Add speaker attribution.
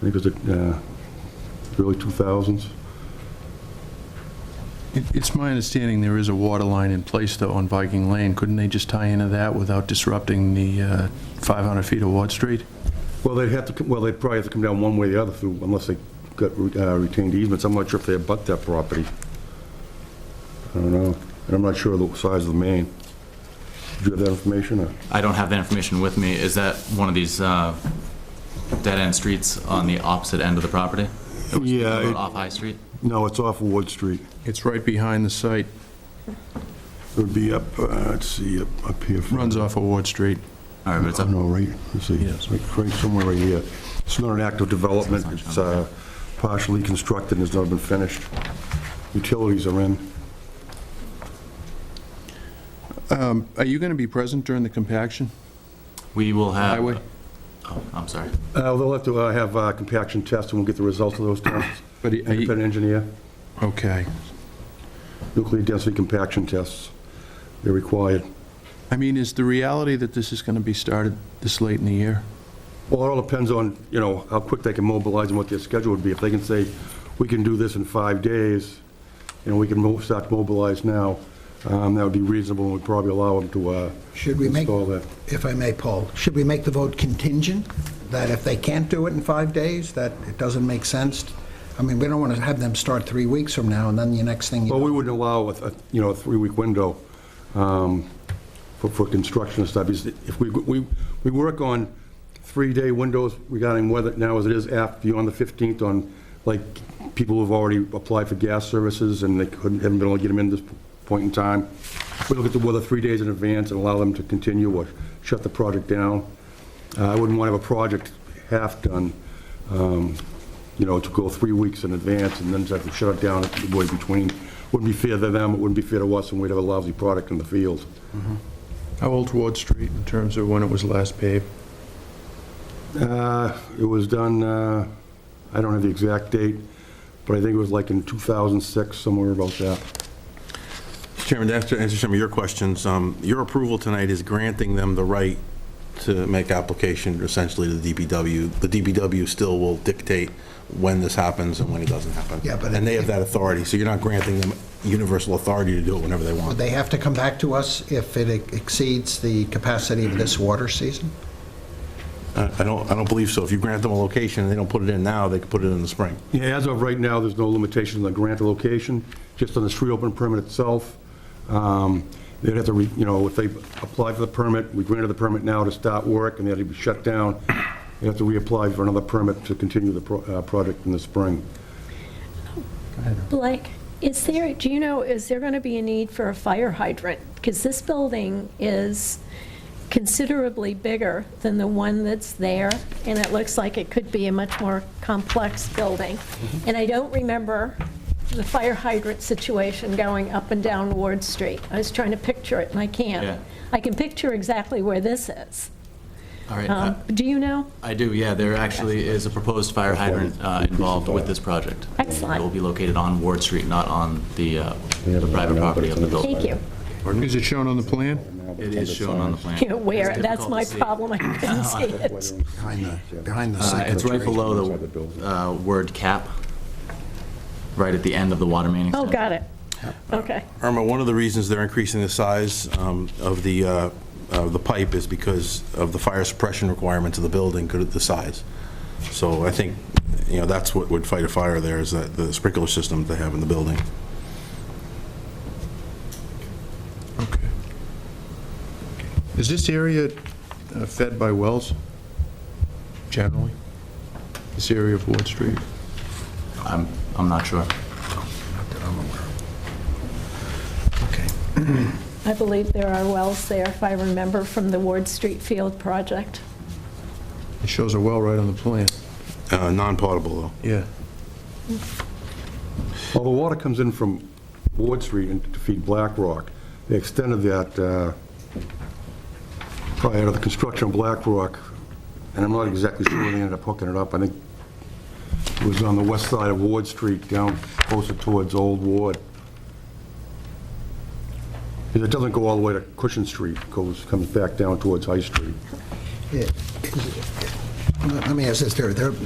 Speaker 1: think it was the uh, early 2000s.
Speaker 2: It- It's my understanding there is a water line in place, though, on Viking Lane. Couldn't they just tie into that without disrupting the uh, 500 feet of Ward Street?
Speaker 1: Well, they'd have to, come- well, they'd probably have to come down one way or the other through, unless they got uh, retained easements. I'm not sure if they abut that property. I don't know. And I'm not sure of the size of the main. Do you have that information? or-
Speaker 3: I don't have that information with me. Is that one of these uh, dead-end streets on the opposite end of the property? It was
Speaker 1: Yeah, Uh, it-
Speaker 3: Off High Street?
Speaker 1: No, it's off Ward Street.
Speaker 2: It's right behind the site,
Speaker 1: It would be up, uh, let's see, up up here. from-
Speaker 2: runs off of Ward Street.
Speaker 3: All right, but it's
Speaker 1: Oh,
Speaker 3: up,
Speaker 1: no, right, let's see,
Speaker 2: Yes.
Speaker 1: Right- right somewhere right here. It's not an active development, it's uh, partially constructed and has not been finished. Utilities are in.
Speaker 2: Are you going to be present during the compaction?
Speaker 3: we will have...
Speaker 2: Highway?
Speaker 3: Oh, I'm sorry.
Speaker 1: Uh, They'll have to uh, have uh, compaction tests, and we'll get the results of those tests.
Speaker 2: But are you-
Speaker 1: Independent engineer,
Speaker 2: Okay.
Speaker 1: nuclear density compaction tests, they're required.
Speaker 2: I mean, is the reality that this is going to be started this late in the year?
Speaker 1: Well, it all depends on, you know, how quick they can mobilize and what their schedule would be. If they can say, we can do this in five days, you know, we can mo- start to mobilize now, um, that would be reasonable, and we'd probably allow them to uh,
Speaker 4: Should we make-
Speaker 1: install that.
Speaker 4: If I may, Paul, should we make the vote contingent, that if they can't do it in five days, that it doesn't make sense? I mean, we don't want to have them start three weeks from now, and then the next thing you
Speaker 1: Well,
Speaker 4: know...
Speaker 1: we wouldn't allow, a- a, you know, a three-week window um, for for construction and stuff. Because If we, we we work on three-day windows regarding whether, now as it is, after, beyond the 15th, on, like, people who've already applied for gas services and they couldn't, haven't been able to get them in this point in time. We look at the weather three days in advance and allow them to continue or shut the project down. Uh, I wouldn't want to have a project half-done, um, you know, to go three weeks in advance and then have to shut it down the way between. Wouldn't be fair to them, it wouldn't be fair to us, and we'd have a lousy product in the field.
Speaker 2: How old's Ward Street in terms of when it was last paved?
Speaker 1: Uh, It was done, uh, I don't have the exact date, but I think it was like in 2006, somewhere about that.
Speaker 5: Mr. Chairman, to answer answer some of your questions, um, your approval tonight is granting them the right to make application essentially to the DPW. The DPW still will dictate when this happens and when it doesn't happen.
Speaker 4: Yeah, but
Speaker 5: And they
Speaker 4: it-
Speaker 5: have that authority, so you're not granting them universal authority to do it whenever they
Speaker 4: Would
Speaker 5: want.
Speaker 4: they have to come back to us if it exceeds the capacity of this water season?
Speaker 5: I I don't, I don't believe so. If you grant them a location and they don't put it in now, they could put it in the spring.
Speaker 1: Yeah, as of right now, there's no limitation on the grant of location, just on the street open permit itself. Um, They'd have to, re- you know, if they apply for the permit, we granted the permit now to start work, and they had to be shut down, they have to reapply for another permit to continue the pro- uh, project in the spring.
Speaker 6: Blake, is there, do you know, is there going to be a need for a fire hydrant? Because this building is considerably bigger than the one that's there, and it looks like it could be a much more complex building.
Speaker 3: Mm-hmm.
Speaker 6: And I don't remember the fire hydrant situation going up and down Ward Street. I was trying to picture it, and I
Speaker 3: Yeah.
Speaker 6: can't. I can picture exactly where this is.
Speaker 3: All right.
Speaker 6: Um,
Speaker 3: I-
Speaker 6: Do you know?
Speaker 3: I do, yeah, there actually is a proposed fire hydrant uh, involved with this project.
Speaker 6: Excellent.
Speaker 3: It will be located on Ward Street, not on the uh, the private property of the building.
Speaker 6: Thank you.
Speaker 2: Is it shown on the plan?
Speaker 3: It is shown on the plan.
Speaker 6: You know, where,
Speaker 3: It's
Speaker 6: that's
Speaker 3: difficult
Speaker 6: my
Speaker 3: to see.
Speaker 6: problem, I couldn't see it.
Speaker 4: Behind the, behind the
Speaker 3: Uh, It's right below the uh, word cap, right at the end of the water main
Speaker 6: Oh,
Speaker 3: extension.
Speaker 6: got it. Okay.
Speaker 5: Irma, one of the reasons they're increasing the size um, of the, uh, of the pipe is because of the fire suppression requirements of the building, because of the size. So I think, you know, that's what would fight a fire there, is that the sprinkler system they have in the building.
Speaker 2: Okay. Is this area uh, fed by wells generally? This area of Ward Street?
Speaker 3: I'm, I'm not sure.
Speaker 6: I believe there are wells there, if I remember, from the Ward Street Field project.
Speaker 2: It shows a well right on the plan.
Speaker 5: Uh, Non-potable, though.
Speaker 2: Yeah.
Speaker 1: Well, the water comes in from Ward Street and to feed Black Rock. They extended that uh, prior to the construction of Black Rock, and I'm not exactly sure where they ended up hooking it up. I think it was on the west side of Ward Street, down closer towards Old Ward. Because it doesn't go all the way to Cushion Street, It goes, comes back down towards High Street.
Speaker 4: Let me ask this, there, there-